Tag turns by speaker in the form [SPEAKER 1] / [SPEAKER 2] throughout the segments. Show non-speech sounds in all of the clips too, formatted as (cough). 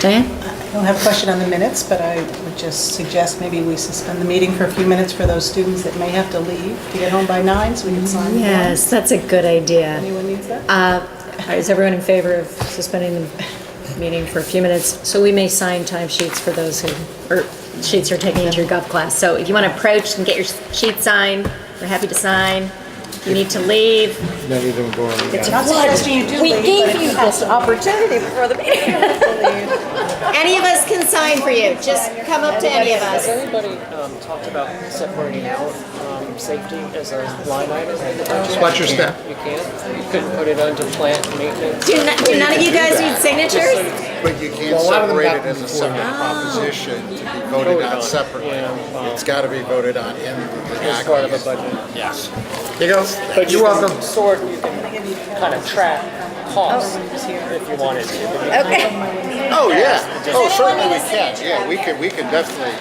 [SPEAKER 1] Diane?
[SPEAKER 2] I don't have a question on the minutes, but I would just suggest maybe we suspend the meeting for a few minutes for those students that may have to leave to get home by nine, so we can sign. the warrant.
[SPEAKER 3] Yes, that's a good idea.
[SPEAKER 2] Anyone needs that?
[SPEAKER 3] Uh, Is everyone in favor of suspending the meeting for a few minutes? So we may sign timesheets for those who, or sheets are taking into your gov class. So if you want to approach and get your sheet signed, we're happy to sign. If you need to leave,
[SPEAKER 4] None of them go on the
[SPEAKER 3] it's a
[SPEAKER 4] guy.
[SPEAKER 2] Not
[SPEAKER 3] flood.
[SPEAKER 2] suggesting you do
[SPEAKER 3] We
[SPEAKER 2] leave,
[SPEAKER 3] gave
[SPEAKER 2] but if
[SPEAKER 3] you
[SPEAKER 2] you have
[SPEAKER 3] this opportunity before the meeting.
[SPEAKER 2] (laughs)
[SPEAKER 3] Any of us can sign for you, just come up to any of
[SPEAKER 5] Has
[SPEAKER 3] us.
[SPEAKER 5] anybody um, talked about separating out um, safety as a line item in the budget?
[SPEAKER 4] Just watch your step.
[SPEAKER 5] You can't? You couldn't put it under plant maintenance?
[SPEAKER 3] Do n- do none of you guys need signatures?
[SPEAKER 6] But you can't
[SPEAKER 4] Well, a lot of them
[SPEAKER 6] separate it
[SPEAKER 4] happen
[SPEAKER 6] as a
[SPEAKER 4] before.
[SPEAKER 6] separate proposition to be voted
[SPEAKER 5] Voted
[SPEAKER 6] on
[SPEAKER 5] on,
[SPEAKER 6] separately.
[SPEAKER 5] yeah, um,
[SPEAKER 6] It's got to be voted on in the
[SPEAKER 5] As part of a
[SPEAKER 6] aggregate.
[SPEAKER 5] budget?
[SPEAKER 6] Yes.
[SPEAKER 4] Here you go.
[SPEAKER 5] But you
[SPEAKER 4] You're welcome.
[SPEAKER 5] can sort, you can kind of track costs if you wanted to.
[SPEAKER 3] Okay.
[SPEAKER 6] Oh, yeah. Oh,
[SPEAKER 3] anyone
[SPEAKER 6] certainly
[SPEAKER 3] need a
[SPEAKER 6] we can.
[SPEAKER 3] signature?
[SPEAKER 6] Yeah, we could, we could definitely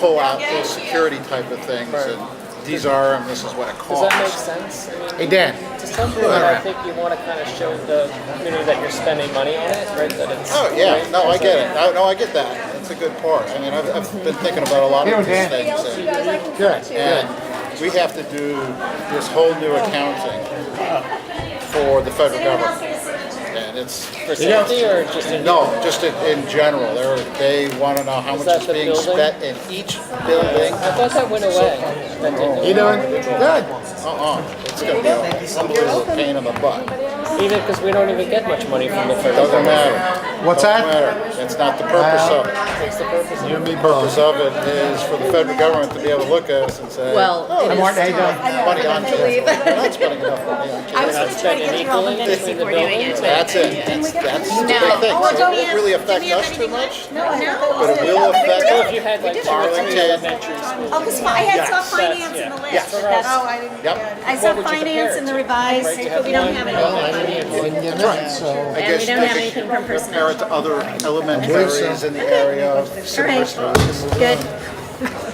[SPEAKER 6] pull out those security type of things and these are, and this is what it
[SPEAKER 5] Does that make
[SPEAKER 6] costs.
[SPEAKER 5] sense? I mean,
[SPEAKER 4] Hey, Dan.
[SPEAKER 5] To some degree, I think you want to kind of show the community that you're spending money on it, right? That it's.
[SPEAKER 6] Oh, yeah.
[SPEAKER 5] right,
[SPEAKER 6] No, I
[SPEAKER 5] as a-
[SPEAKER 6] get it. No, no, I get that. That's a good part. I mean, I've, I've been thinking about a lot
[SPEAKER 4] Here,
[SPEAKER 6] of these
[SPEAKER 4] Dan.
[SPEAKER 6] things. and- And we have to do this whole new accounting for the federal government. And it's,
[SPEAKER 5] For safety or just in?
[SPEAKER 6] No, just in, in general, they're, they wanna know how
[SPEAKER 5] Is
[SPEAKER 6] much
[SPEAKER 5] that
[SPEAKER 6] is
[SPEAKER 5] the
[SPEAKER 6] being
[SPEAKER 5] building?
[SPEAKER 6] spent in each building.
[SPEAKER 5] I thought that went away. That didn't.
[SPEAKER 4] You doing? Good.
[SPEAKER 6] Uh-uh, it's gonna be a unbelievable pain in the butt.
[SPEAKER 5] Even because we don't even get much money from the federal
[SPEAKER 6] Doesn't
[SPEAKER 5] government.
[SPEAKER 6] matter.
[SPEAKER 4] What's
[SPEAKER 6] Doesn't
[SPEAKER 4] that?
[SPEAKER 6] matter. It's not the purpose of it.
[SPEAKER 5] What's the purpose of
[SPEAKER 6] The only purpose of it is for the federal government to be able to look at us and say,
[SPEAKER 3] Well,
[SPEAKER 6] "Oh,
[SPEAKER 3] it
[SPEAKER 4] Hi,
[SPEAKER 3] is
[SPEAKER 4] Martin. How you
[SPEAKER 3] time.
[SPEAKER 4] doing?
[SPEAKER 6] money on kids, we're not spending enough money on kids."
[SPEAKER 5] not spending equally between the buildings?
[SPEAKER 6] That's it. That's, that's the big thing. So It won't really affect us too much,
[SPEAKER 2] No, I thought that was
[SPEAKER 6] but it will
[SPEAKER 5] So if
[SPEAKER 6] affect
[SPEAKER 5] you had like two or three
[SPEAKER 6] Arlington,
[SPEAKER 5] elementary schools.
[SPEAKER 1] Oh, because I had saw finance in the
[SPEAKER 5] yeah.
[SPEAKER 6] Yeah.
[SPEAKER 1] list. but that's-
[SPEAKER 2] Oh, I didn't.
[SPEAKER 6] Yep.
[SPEAKER 1] I
[SPEAKER 5] What
[SPEAKER 1] saw
[SPEAKER 5] would you
[SPEAKER 1] finance
[SPEAKER 5] compare it
[SPEAKER 1] in the
[SPEAKER 5] to?
[SPEAKER 1] revised,
[SPEAKER 5] Right, you
[SPEAKER 1] but we
[SPEAKER 5] have
[SPEAKER 1] don't have
[SPEAKER 5] one
[SPEAKER 1] it. all.
[SPEAKER 5] middle
[SPEAKER 4] Right, so.
[SPEAKER 6] I
[SPEAKER 3] And
[SPEAKER 6] guess
[SPEAKER 3] we don't have
[SPEAKER 6] they
[SPEAKER 3] anything
[SPEAKER 6] should
[SPEAKER 3] from
[SPEAKER 6] compare
[SPEAKER 3] personnel.
[SPEAKER 6] it to other elementaries in the area of
[SPEAKER 3] All
[SPEAKER 6] Silver Springs.
[SPEAKER 3] right, good.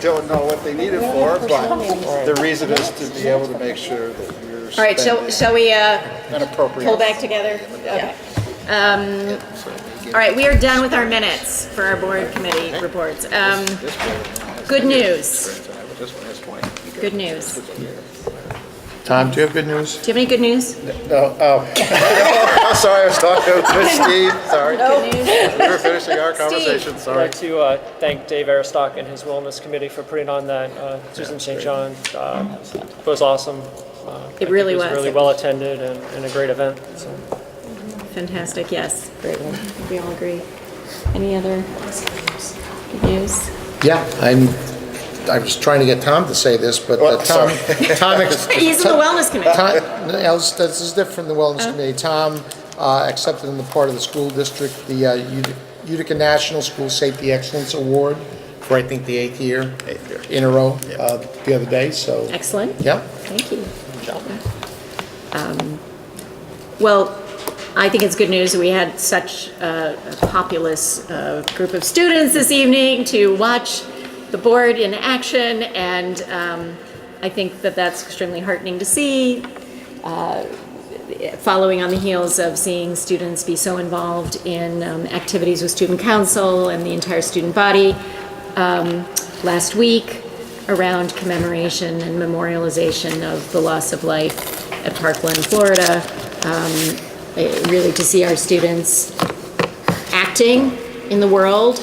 [SPEAKER 6] Don't know what they need it for, but the reason is to be able to make sure that you're
[SPEAKER 3] All right, shall,
[SPEAKER 6] spending
[SPEAKER 3] shall we uh,
[SPEAKER 6] an appropriate.
[SPEAKER 3] pull back together? Okay. Um, All right, we are done with our minutes for our board committee reports. Um, Good news, good news. Do you
[SPEAKER 4] Tom, do you have good news?
[SPEAKER 3] have any good news?
[SPEAKER 6] No, oh. I'm sorry, I was
[SPEAKER 3] (laughs)
[SPEAKER 6] talking to Steve, sorry. We were finishing our conversation,
[SPEAKER 5] I'd
[SPEAKER 6] sorry.
[SPEAKER 5] like to uh, thank Dave Aristock and his Wellness Committee for putting on that. Uh, Susan St. John uh, was awesome. Uh, I think
[SPEAKER 3] really
[SPEAKER 5] It
[SPEAKER 3] was.
[SPEAKER 5] was really well-attended and and a great event, so.
[SPEAKER 3] Fantastic, yes. Great one. We all agree. Any other good news?
[SPEAKER 4] Yeah, I'm, I was trying to get Tom to say this, but uh,
[SPEAKER 6] Well,
[SPEAKER 4] Tom, (laughs)
[SPEAKER 6] (laughs)
[SPEAKER 4] Tom, ex-
[SPEAKER 3] He's in the wellness committee.
[SPEAKER 4] Tom, no, else- this is different from the Wellness Committee. Tom uh, accepted on the part of the school district the uh, Ut- Utica National School Safety Excellence Award for, I think, the eighth year
[SPEAKER 6] Eighth year.
[SPEAKER 4] in a row uh, the other day, so,
[SPEAKER 3] Excellent.
[SPEAKER 4] yeah.
[SPEAKER 3] Thank you. Um, Well, I think it's good news that we had such a a populous uh, group of students this evening to watch the board in action, and um, I think that that's extremely heartening to see, uh, following on the heels of seeing students be so involved in um, activities with student council and the entire student body um, last week around commemoration and memorialization of the loss of life at Parkland, Florida. Um, eh, Really to see our students acting in the world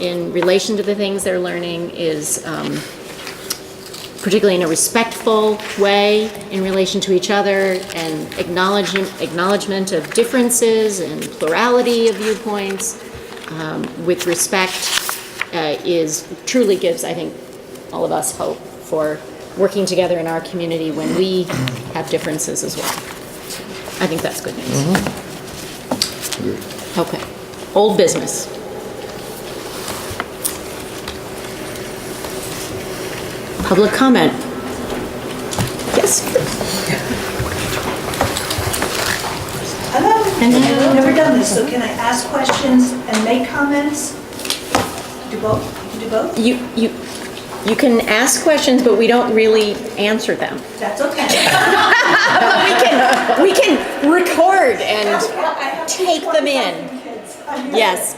[SPEAKER 3] in relation to the things they're learning is, um, particularly in a respectful way in relation to each other and acknowledgement, acknowledgement of differences and plurality of viewpoints with respect uh, is, truly gives, I think, all of us hope for working together in our community when we have differences as well. I think that's good news. Okay. Old business. Public comment. Yes.
[SPEAKER 7] Hello? I've never done this, so can I ask questions and make comments? Do both, You can do both?
[SPEAKER 3] You, you, you can ask questions, but we don't really answer them.
[SPEAKER 7] That's
[SPEAKER 1] (laughs)
[SPEAKER 7] okay.
[SPEAKER 3] We can, we can record and
[SPEAKER 7] I have
[SPEAKER 3] take them in.
[SPEAKER 7] kids.
[SPEAKER 3] Yes,